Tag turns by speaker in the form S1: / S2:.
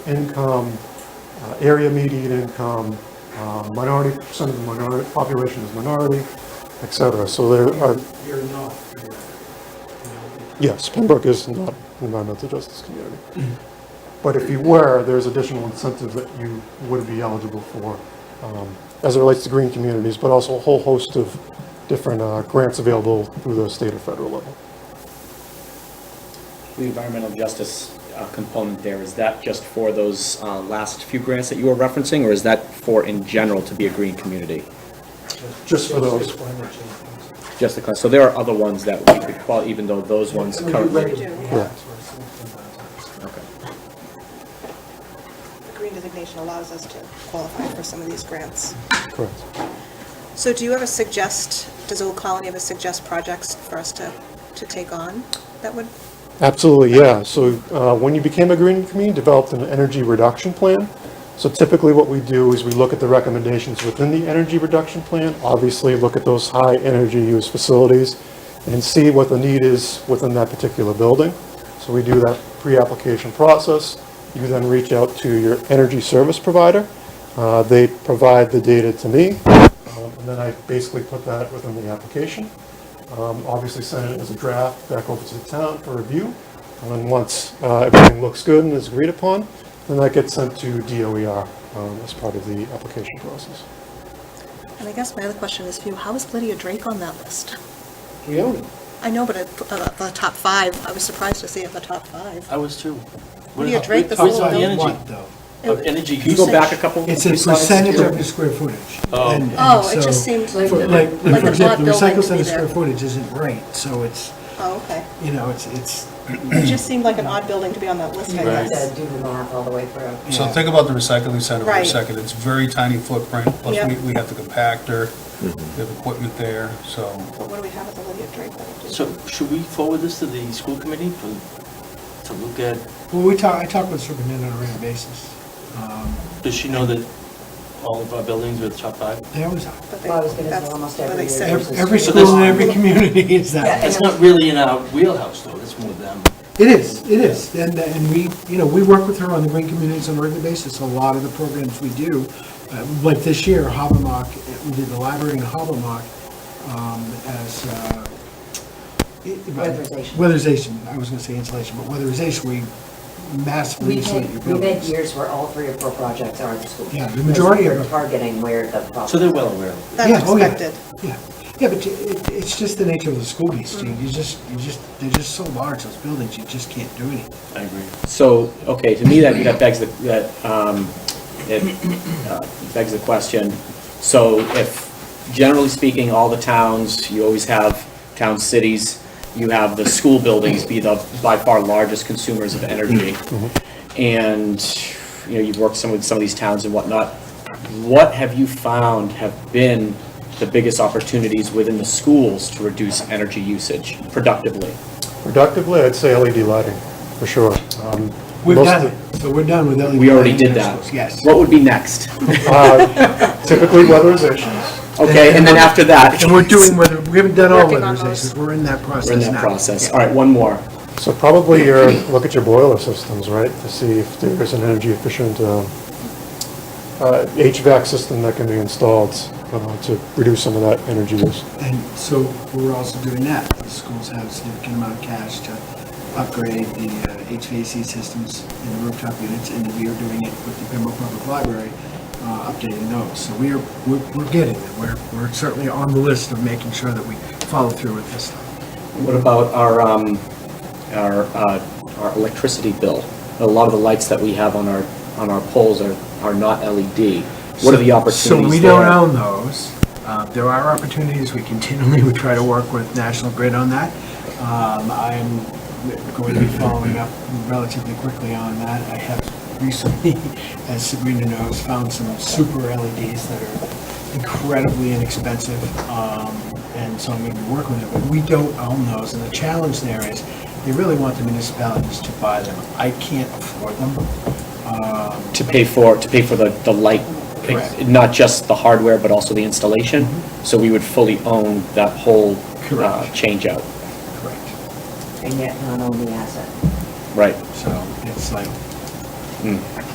S1: income, uh, area median income, uh, minority, percent of the minority, population is minority, et cetera. So there are,
S2: You're not. Pembroke.
S1: yes, Pembroke is not an environmental justice community. But if you were, there's additional incentives that you would be eligible for um, as it relates to green communities, but also a whole host of different uh, grants available through the state or federal level.
S3: The environmental justice uh, component there, is that just for those uh, last few grants that you were referencing, or is that for in general to be a green community?
S1: Just for those.
S2: Just climate change.
S3: Just the, class- so there are other ones that we could qualify, even though those ones
S2: We do
S3: currently.
S2: regular
S4: Yeah.
S2: grants or something like
S3: Okay.
S4: The green designation allows us to qualify for some of these grants.
S1: Correct.
S4: So do you ever suggest, does Old Colony ever suggest projects for us to, to take on that would,
S1: Absolutely, yeah. So uh, when you became a green community, developed an energy reduction plan. So typically what we do is we look at the recommendations within the energy reduction plan, obviously look at those high energy use facilities and see what the need is within that particular building. So we do that pre-application process. You then reach out to your energy service provider. Uh, They provide the data to me, um, and then I basically put that within the application. Um, Obviously, send it as a draft back over to the town for review. And then once uh, everything looks good and is agreed upon, then that gets sent to DOER um, as part of the application process.
S4: and I guess my other question is for you, how is Lydia Drake on that list?
S2: that. We own it.
S4: I know, but at the- uh, the top five, I was surprised to see at the top five.
S5: I was too.
S4: What do you drink this
S5: We
S4: little
S5: talked about
S4: milk?
S5: energy, of energy
S3: Can you go
S5: usage.
S3: back a couple?
S2: It's a
S3: slides?
S2: percentage of the square footage.
S5: Oh.
S2: And- and
S4: Oh, it just
S2: so-
S4: seemed like
S2: for-
S4: the-
S2: Like,
S4: like
S2: for
S4: the
S2: example, the
S4: lot building
S2: recycle
S4: to
S2: center
S4: be there.
S2: square footage isn't right, so it's,
S4: Oh, okay.
S2: you know, it's, it's,
S4: It just seemed like an odd building to be on that list, I
S6: Right.
S4: guess.
S6: do the math all the way through.
S7: So
S2: Yeah.
S7: think about the recycling center for a
S4: Right.
S7: second. It's very tiny footprint,
S4: Yeah.
S7: plus we, we have the compactor, we have equipment there, so.
S4: But what do we have at the Lydia Drake that would do?
S5: So should we forward this to the school committee for, to look at,
S2: well, we talk, I talk with the superintendent on a regular basis. Um,
S5: does she know that all of our buildings are top five?
S2: They always are.
S4: But they-
S6: Well, I was gonna say
S4: that's
S6: almost
S4: what
S6: every
S4: they
S6: year
S4: said.
S6: there's
S2: Every
S6: a
S2: every
S5: So
S2: school in
S5: this-
S2: every community is that.
S6: Yeah.
S5: It's not really in our wheelhouse, though, it's more them.
S2: It is, it is, and, and we, you know, we work with her on the green communities on a regular basis, a lot of the programs we do, uh, like this year, Habermock, uh, we did the library in Habermock um, as. uh, it- it-
S6: Weatherization.
S2: Weatherization, I was gonna say insulation, but weatherization, we massively
S6: We've
S2: insulate your
S6: had, we've had
S2: buildings.
S6: years where all three or four projects are in the school.
S2: Yeah, the majority of
S6: Because
S2: them.
S6: we're targeting where the problem.
S5: So they're well aware.
S4: That's
S2: Yeah, oh, yeah.
S4: expected.
S2: Yeah, yeah, but you- it, it's just the nature of the school these days, you just, you just, they're just so large, those buildings, you just can't do anything.
S5: I agree.
S3: So, okay, to me, that, that begs the, that, um, it uh, begs the question. So if, generally speaking, all the towns, you always have town cities, you have the school buildings be the by far largest consumers of energy. And, you know, you've worked some with some of these towns and whatnot. What have you found have been the biggest opportunities within the schools to reduce energy usage productively?
S1: Productively, I'd say LED lighting, for sure. Um,
S2: We've
S1: most
S2: done
S1: of-
S2: it, so we're done with E LED.
S3: We already
S2: lighting in
S3: did
S2: our
S3: that.
S2: schools, Yes.
S3: What would be next?
S1: uh, Typically weatherizations.
S3: Okay, and then after that.
S2: And we're doing, whether, we haven't done all
S4: Working on those.
S2: weatherizations, we're in that process
S3: We're in that
S2: now.
S3: process. All right, one more.
S1: So probably your, look at your boiler systems, right, to see if there's an energy efficient uh, uh, HVAC system that can be installed uh, to reduce some of that energy use.
S2: And so we're also doing that. The schools have a significant amount of cash to upgrade the uh, HVAC systems in the rooftop units, and we are doing it with the Pembroke Public Library, uh, updating those. So we are, we're we're getting them. We're, we're certainly on the list of making sure that we follow through with this stuff.
S3: What about our, um, our, uh, our electricity bill? A lot of the lights that we have on our, on our poles are, are not LED. What are the opportunities
S2: So we
S3: there?
S2: don't own those. Uh, There are opportunities, we continually, we try to work with National Grid on that. Um, I'm going to be following up relatively quickly on that. I have recently, as Sabrina knows, found some super LEDs that are incredibly inexpensive, um, and so I'm going to be working with it, but we don't own those, and the challenge there is, they really want the municipalities to buy them. I can't afford them. Um,
S3: To pay for, to pay for the, the light,
S2: Correct. Mm-hmm.
S3: not just the hardware, but also the installation? So we would fully own that whole, uh,
S2: Correct.
S3: change out,
S2: Correct.
S6: And yet not own the asset.
S3: right?
S2: So it's like,
S3: Mm.